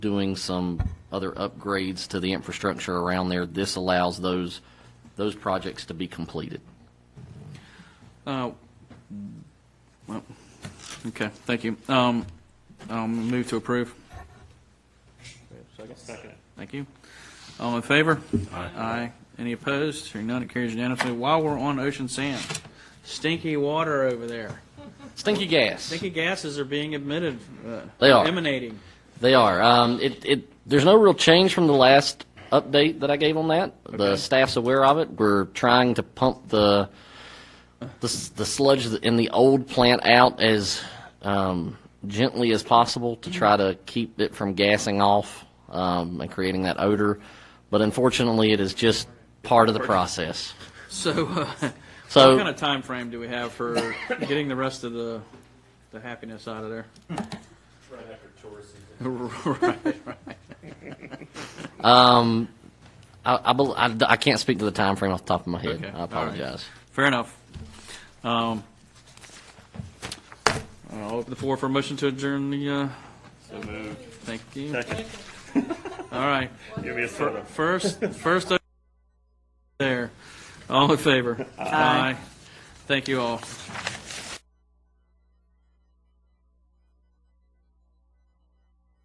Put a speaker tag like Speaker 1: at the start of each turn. Speaker 1: doing some other upgrades to the infrastructure around there. This allows those, those projects to be completed.
Speaker 2: Uh, well, Okay, thank you. Um, I'll move to approve.
Speaker 3: Second.
Speaker 2: Thank you. All in favor? Aye. Any opposed? Hearing none, it carries unanimously. While we're on ocean sand, stinky water over there.
Speaker 1: Stinky gas.
Speaker 2: Stinky gases are being emitted. uh,
Speaker 1: They are.
Speaker 2: Emanating.
Speaker 1: They are. Um, it, it, there's no real change from the last update that I gave on that. The staff's aware of it. We're trying to pump the, the, s- the sludge in the old plant out as um, gently as possible to try to keep it from gassing off um, and creating that odor. But unfortunately, it is just part of the process.
Speaker 2: So, uh,
Speaker 1: So-
Speaker 2: what kind of time frame do we have for getting the rest of the, the happiness out of there?
Speaker 3: Right after tourist season.
Speaker 1: I, I, bel- I, I can't speak to the time frame off the top of my head.
Speaker 2: Okay.
Speaker 1: I apologize.
Speaker 2: Fair enough. Um, I'll open the floor for a motion to adjourn the, uh,
Speaker 3: So moved.
Speaker 2: thank you. All right.
Speaker 3: Give me a soda.
Speaker 2: First, first, o- there. All in favor? Aye. Thank you all.